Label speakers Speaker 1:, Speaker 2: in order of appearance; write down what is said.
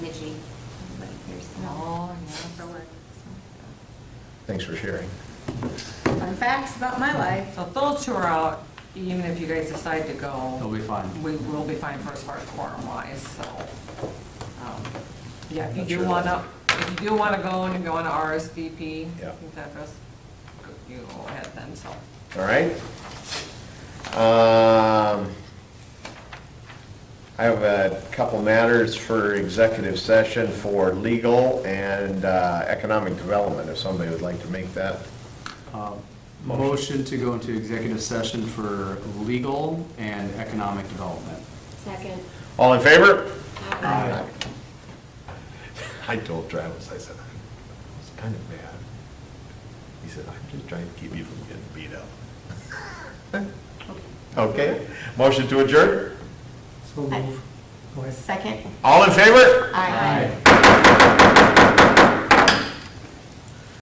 Speaker 1: Thanks for sharing.
Speaker 2: Fun facts about my life.
Speaker 3: So if those two are out, even if you guys decide to
Speaker 4: It'll
Speaker 3: go,
Speaker 4: be fine.
Speaker 3: we will be fine for as far as quorum wise, so. um, Yeah, if you
Speaker 1: Not sure
Speaker 3: do
Speaker 1: about
Speaker 3: wanna, if you do wanna go and if you wanna RSVP,
Speaker 1: Yeah.
Speaker 3: you can just, you go ahead then, so.
Speaker 1: All right. Um, I have a couple matters for executive session for legal and uh, economic development, if somebody would like to make that.
Speaker 4: Um, Motion to go into executive session for legal and economic development.
Speaker 5: Second.
Speaker 1: All in favor?
Speaker 5: Aye.
Speaker 1: I told Travis, I said, I was kind of mad. He said, I'm just trying to keep you from getting beat up. Okay, motion to adjourn?
Speaker 5: Second.
Speaker 1: All in favor?
Speaker 5: Aye.